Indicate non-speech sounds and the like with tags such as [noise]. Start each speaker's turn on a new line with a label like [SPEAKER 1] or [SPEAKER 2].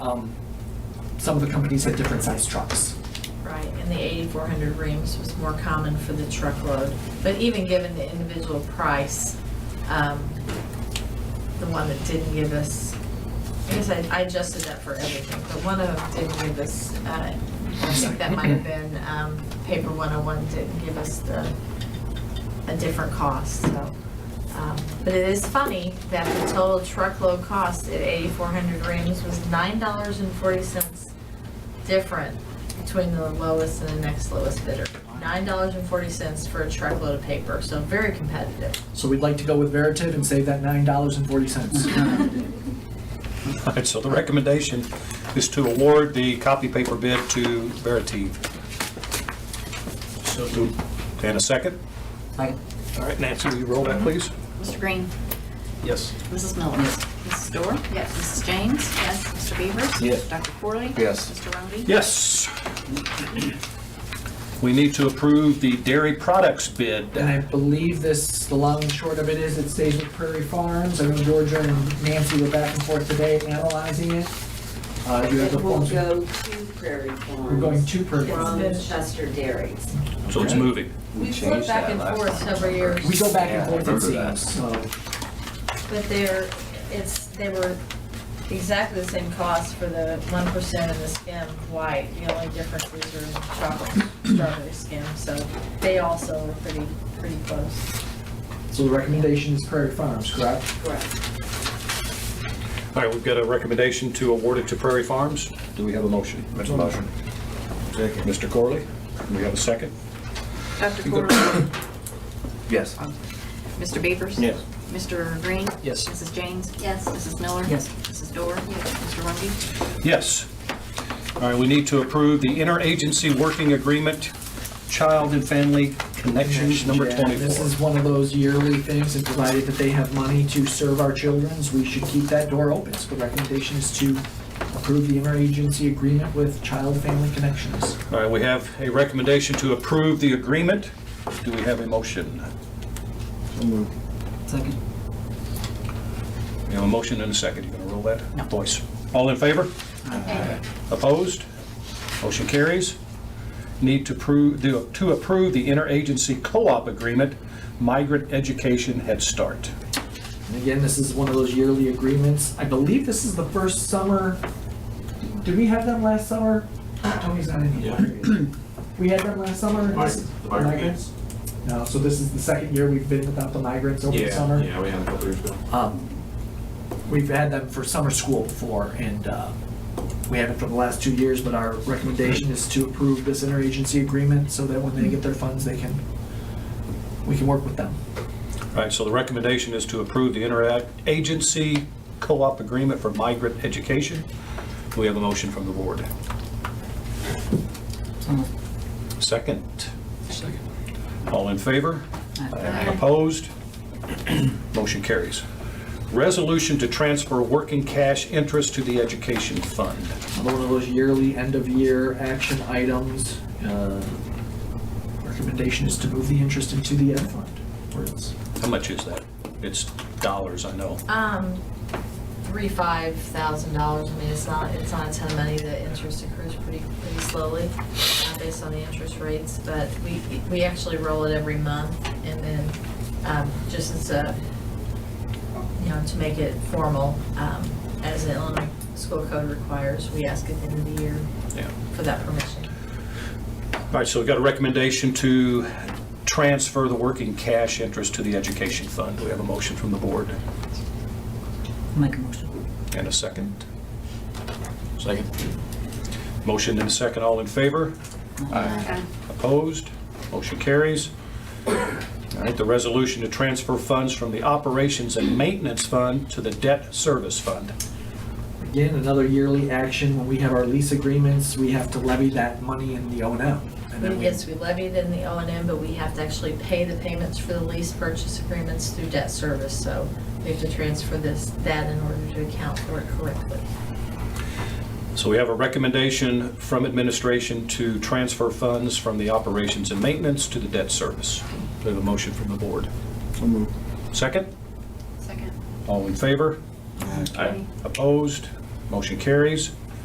[SPEAKER 1] Um, Some of the companies had different sized trucks.
[SPEAKER 2] Right, and the 8,400 reams was more common for the truckload. But even given the individual price, um, the one that didn't give us, I guess I I adjusted that for everything, but one of them didn't give us, uh, I think that might have been um, Paper 101 didn't give us the, a different cost, so. um, But it is funny that the total truckload cost at 8,400 reams was $9.40 different between the lowest and the next lowest bidder. Nine dollars and forty cents for a truckload of paper, so very competitive.
[SPEAKER 1] So we'd like to go with Veritiv and save that nine dollars and forty cents.
[SPEAKER 3] All right, so the recommendation is to award the copy paper bid to Veritiv. So And a second? All right, Nancy, will you roll that, please?
[SPEAKER 4] Mr. Green.
[SPEAKER 3] Yes.
[SPEAKER 4] Mrs. Miller. Mrs. Dorr. Yes. Mrs. James. Yes. Mr. Beavers.
[SPEAKER 3] Yes.
[SPEAKER 4] Dr. Corley.
[SPEAKER 3] Yes.
[SPEAKER 4] Mr. Rungy.
[SPEAKER 3] Yes. We need to approve the dairy products bid.
[SPEAKER 1] And I believe this, the long and short of it is, it stays with Prairie Farms. I know Georgia and Nancy were back and forth today analyzing it. Uh, you have the
[SPEAKER 5] It will
[SPEAKER 1] forms.
[SPEAKER 5] go to Prairie Farms.
[SPEAKER 1] We're going to Prairie Farms.
[SPEAKER 5] From Chester Dairies.
[SPEAKER 3] So it's moving.
[SPEAKER 2] We've
[SPEAKER 6] changed
[SPEAKER 2] flipped back
[SPEAKER 6] that
[SPEAKER 2] and
[SPEAKER 6] last
[SPEAKER 2] forth
[SPEAKER 6] time.
[SPEAKER 2] over years,
[SPEAKER 1] We go back and
[SPEAKER 6] Yeah, I
[SPEAKER 1] forth, it
[SPEAKER 6] remember that.
[SPEAKER 1] seems, so.
[SPEAKER 2] but they're, it's, they were exactly the same cost for the one percent and the skim white. The only difference is your chocolate strawberry skim, so they also were pretty, pretty close.
[SPEAKER 1] So the recommendation is Prairie Farms, correct?
[SPEAKER 5] Correct.
[SPEAKER 3] All right, we've got a recommendation to award it to Prairie Farms. Do we have a motion?
[SPEAKER 6] Make a motion. Second.
[SPEAKER 3] Mr. Corley, do we have a second?
[SPEAKER 4] Dr. Corley.
[SPEAKER 6] Yes.
[SPEAKER 4] Um, Mr. Beavers.
[SPEAKER 3] Yes.
[SPEAKER 4] Mr. Green.
[SPEAKER 3] Yes.
[SPEAKER 4] Mrs. James. Yes. Mrs. Miller. Yes. Mrs. Dorr. Yes. Mr. Rungy.
[SPEAKER 3] Yes. All right, we need to approve the interagency working agreement, Child and Family Connections, number
[SPEAKER 1] Yeah, This is
[SPEAKER 3] 24.
[SPEAKER 1] one of those yearly things, and provided that they have money to serve our childrens, we should keep that door open. So the recommendation is to approve the interagency agreement with Child Family Connections.
[SPEAKER 3] All right, we have a recommendation to approve the agreement. Do we have a motion?
[SPEAKER 1] Second.
[SPEAKER 3] We have a motion and a second. You gonna roll that? Voice. All in favor? Opposed? Motion carries. Need to approve, do- to approve the interagency co-op agreement, Migrant Education Head Start.
[SPEAKER 1] And again, this is one of those yearly agreements. I believe this is the first summer, did we have them last summer? Tony's not in here. We had them last summer? This-
[SPEAKER 7] The migrants?
[SPEAKER 1] No, so this is the second year we've been without the migrants over the summer.
[SPEAKER 7] Yeah, we had a couple years ago.
[SPEAKER 1] Um, We've had them for summer school before, and uh, we haven't for the last two years, but our recommendation is to approve this interagency agreement so that when they get their funds, they can, we can work with them.
[SPEAKER 3] All right, so the recommendation is to approve the interagency co-op agreement for migrant education. We have a motion from the board. Second. Second. All in favor? Opposed? [clears throat] Motion carries. Resolution to transfer working cash interest to the education fund.
[SPEAKER 1] Another one of those yearly, end-of-year action items. Uh, Recommendation is to move the interest into the ed fund. where it's-
[SPEAKER 3] How much is that? It's dollars, I know.
[SPEAKER 2] Um, three, five thousand dollars, I mean, it's not, it's not a ton of money, the interest accrues pretty, pretty slowly, uh, based on the interest rates, but we, we actually roll it every month, and then, um, just as a, you know, to make it formal, um, as the Illinois school code requires, we ask at the end of the year
[SPEAKER 3] Yeah.
[SPEAKER 2] for that permission.
[SPEAKER 3] All right, so we've got a recommendation to transfer the working cash interest to the education fund. We have a motion from the board
[SPEAKER 8] Make a motion.
[SPEAKER 3] and a second. Second. Motion and a second, all in favor? Opposed? Motion carries. All right, the resolution to transfer funds from the operations and maintenance fund to the debt service fund.
[SPEAKER 1] Again, another yearly action, when we have our lease agreements, we have to levy that money in the O and M. and then we-
[SPEAKER 2] Yes, we levied in the O and M, but we have to actually pay the payments for the lease purchase agreements through debt service, so we have to transfer this, that in order to account for it correctly.
[SPEAKER 3] So we have a recommendation from administration to transfer funds from the operations and maintenance to the debt service. We have a motion from the board. Second?
[SPEAKER 4] Second.
[SPEAKER 3] All in favor? Aye. Opposed? Motion carries.